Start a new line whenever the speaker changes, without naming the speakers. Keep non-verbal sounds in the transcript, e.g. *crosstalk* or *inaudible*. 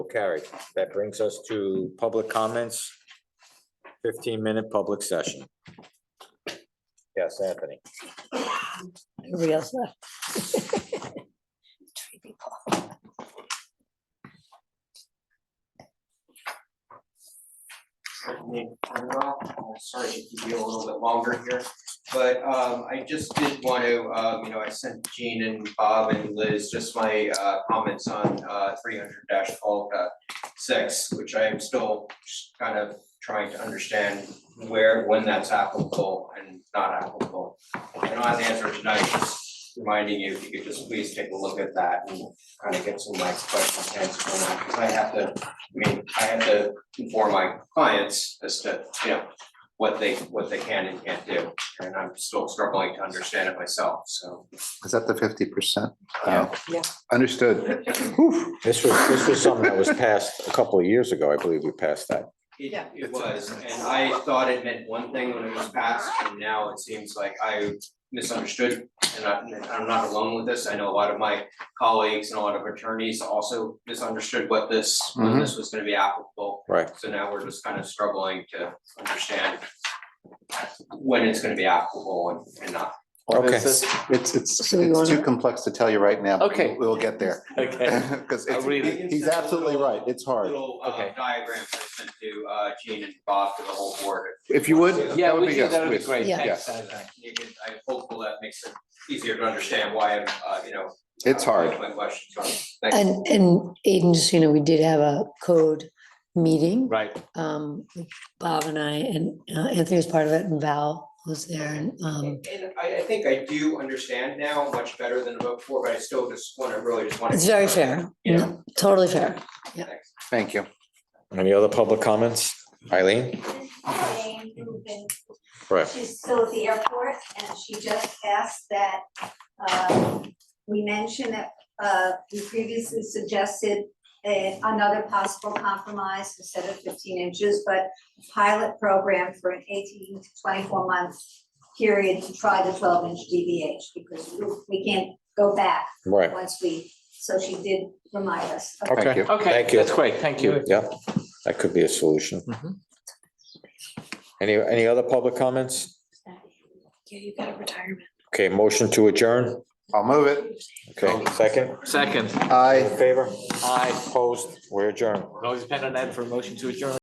carried. That brings us to public comments. Fifteen minute public session. Yes, Anthony.
Everybody else left. Three people.
certainly Cornwell. Uh, Sorry to keep you a little bit longer here, but um I just did want to, um, you know, I sent Gene and Bob and Liz just my uh comments on uh three hundred twelve six, which I am still just kind of trying to understand where, when that's applicable and not applicable. I don't have the answer tonight, just reminding you, if you could just please take a look at that and kind of get some of my questions answered on that, because I have to, I mean, I have to inform my clients as to, you know, what they, what they can and can't do, and I'm still struggling to understand it myself, so.
Is that the fifty percent? Uh,
Yeah.
Yeah.
Understood.
This was, this was something that was passed a couple of years ago. I believe we passed that.
It,
Yeah.
it was, and I thought it meant one thing when it was passed, and now it seems like I misunderstood, and I, and I'm not alone with this, I know a lot of my colleagues and a lot of attorneys also misunderstood what this, when
Mhm.
this was gonna be applicable.
Right.
So now we're just kind of struggling to understand when it's gonna be applicable and, and not.
Well,
Okay.
this is- It's, it's,
So you
it's too
wanna-
complex to tell you right now. but
Okay.
We'll we'll get there. *laughs*
Okay,
Because
I'll read
it.
he's absolutely right. It's hard.
little uh
Okay.
diagrams I sent to uh Gene and Bob to the whole board.
If you would.
yeah,
that would
we
be
do,
yes,
that would be
please.
great,
Yeah.
thanks.
You can, I'm hopeful that makes it easier to understand why I'm, uh, you know.
It's hard.
My questions are, thank you.
And, and Aiden, just, so you know, we did have a code meeting.
Right,
Um, with Bob and I, and uh, Anthony was part of it, and Val was there, and, um,
And I I think I do understand now much better than before, but I still just wanna really just wanna.
it's very fair.
Yeah.
Totally fair. yeah.
Thanks.
Thank you.
Any other public comments? Eileen?
Elaine Rubin.
Right.
She's still at the airport and she just asked that um, we mention that uh, we previously suggested a- another possible compromise instead of fifteen inches, but pilot program for an eighteen to twenty-four month period to try the twelve inch DVH because we- we can't go back
Right.
once we, so she did remind us. of
Thank
Okay.
you.
okay,
Thank you.
that's great, thank you.
Yeah, that could be a solution. Any, any other public comments?
Yeah, you got a retirement.
Okay, motion to adjourn.
I'll move it.
Okay, second.
Second,
All in
Aye.
favor?
aye,
Opposed? We're adjourned.
always depend on that for a motion to adjourn.